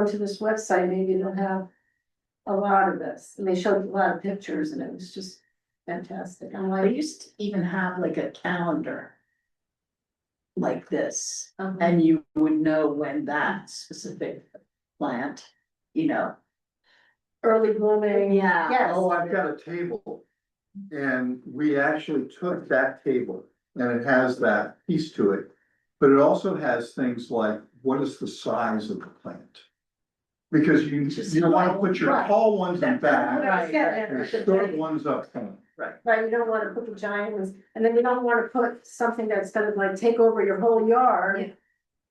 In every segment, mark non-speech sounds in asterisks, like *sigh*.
go to this website, maybe they'll have a lot of this, and they showed a lot of pictures, and it was just fantastic, I'm I like. used to even have like a calendar. Like this, um, and you would know when that specific plant, you know. Early blooming. Yes. Oh, I've got a table. And we actually took that table and it has that piece to it. But it also has things like, what is the size of the plant? Because you, you don't wanna put your Right. tall ones in What back I was getting at and with the short thing. ones up front. Right, you don't wanna put the giant ones, and then you don't wanna put something that's gonna like take over your whole yard.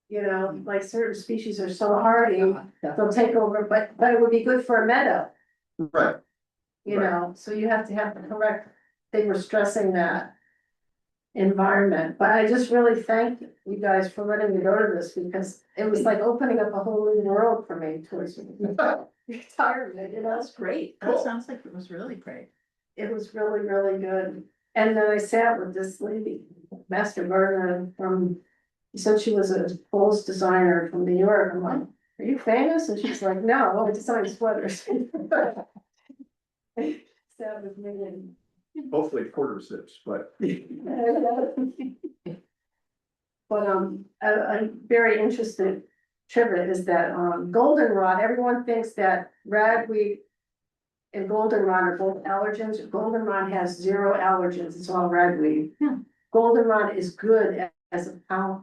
You know, like certain species are so hardy, they'll take over, but, but it would be good for a meadow, Right, you Right. know, so you have to have the correct, they were stressing that. Environment, but I just really thank you guys for letting me go to this, because it was like opening up a whole new world for me towards. *laughs* Retirement, you know? That's great, Cool. that sounds like it was really great. it was really, really good. And then I sat with this lady, Master Vernon from, he said she was a clothes designer from New York. I'm like, are you famous? And she's like, no, I design sweaters. *laughs* Sat with me and. hopefully quarter zips, *laughs* but *laughs* But um, a, a very interesting trivia is that um, goldenrod, everyone thinks that ragweed. And goldenrod are both allergens, goldenrod has zero allergens, it's all ragweed. Yeah. Goldenrod is good a- as a pound.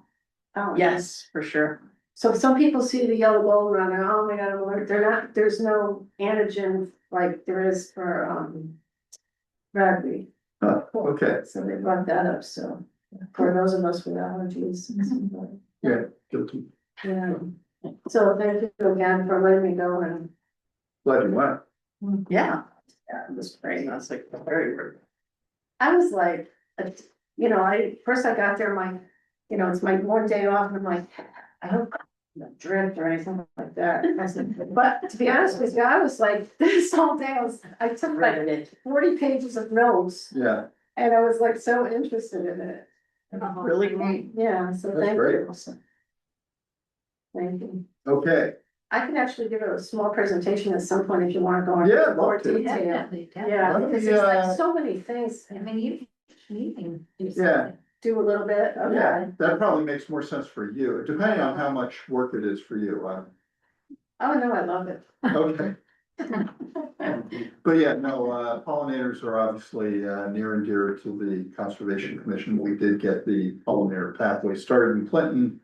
Yes, for sure. So some people see the yellow goldenrod and oh my god, I'm allergic." they're not, there's no antigen like there is for um. Ragweed. uh, okay, So they brought that up, so for those of us with allergies. Mm-hmm. guilty. Yeah, so thank you again for letting me go and Glad you went. Yeah. Yeah, it was great, that's like very rude. I was like, uh, you know, I, first I got there, my, you know, it's my one day off and I'm like, I hope I don't drift or anything like that. I *laughs* said, But to be honest with you, I was like, *laughs* this whole day, I was, I took like Riveted. forty pages of notes Yeah, and I was like so interested in it. Really great. Yeah, so That's thank great. you. Thank you. okay, I can actually give a small presentation at some point if you wanna go into Yeah, I'd love more to. detail. Why Yeah, don't because we, there's uh, like so many things, I mean, you Meeting. Yeah. do a little bit, yeah, okay. that probably makes more sense for you, depending on how much work it is for you, uh, Oh, no, I love it. Okay. But yeah, no, uh, pollinators are obviously, uh, near and dear to the Conservation Commission. We did get the pollinator pathway started in Clinton.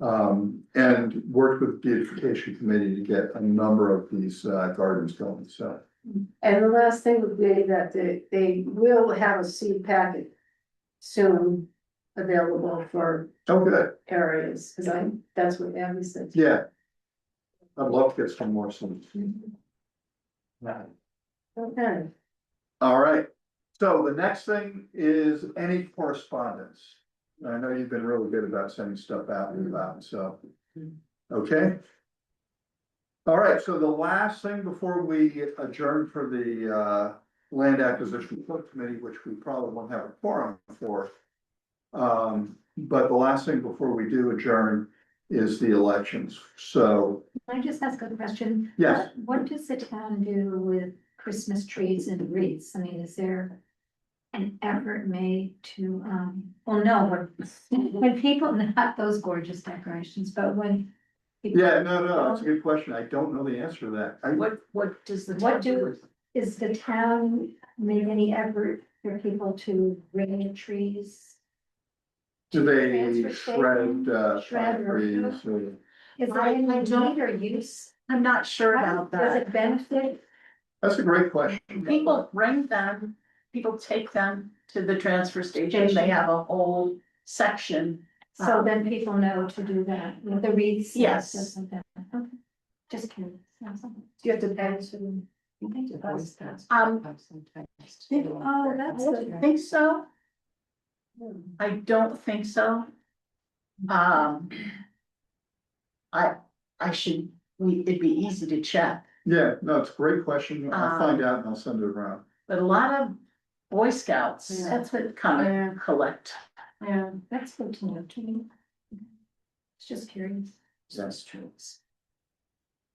Um, and worked with beautification committee to get a number of these, uh, gardens going, so. And the last thing would be that they, they will have a seed packet soon available for Oh, good, areas, cause I, that's what Abby said. yeah. I'd love to get some more, some. Okay, All right, so the next thing is any correspondence. I know you've been really good about sending stuff out and about, so, okay? All right, so the last thing before we adjourn for the uh land acquisition subcommittee, which we probably won't have a forum for. Um, but the last thing before we do adjourn is the elections, so, Can I just ask a question? yes, What- What does the town do with Christmas trees and wreaths? I mean, is there an effort made to, um, well, no, when, when people, not those gorgeous decorations, but when. people- yeah, no, no, that's a good question. I don't know the answer to that. I- What, what does the? What town do- Is the town made any effort for people to ring trees? Do Transfer they station, shred, uh, shred or- trees or? Is there I- any I don't- need or use? I'm not sure about Does that. it benefit? That's a great question. People bring them, people take them to the transfer station, they Station. have a whole section. So Um, then people know to do that, with the wreaths. and Yes. stuff like that. Okay. Just curious. That's all. do you have to pay to? Um, Oh, that's I don't good. think so, I don't think so. Um. I, I should, we, it'd be easy to check, Yeah, no, it's a great question. I'll Uh, Um, find out and I'll send it around. but a lot of Boy Scouts, Yeah. that's what kind of collect. Yeah. That's good to know, too. It's just curious. Yes. trees.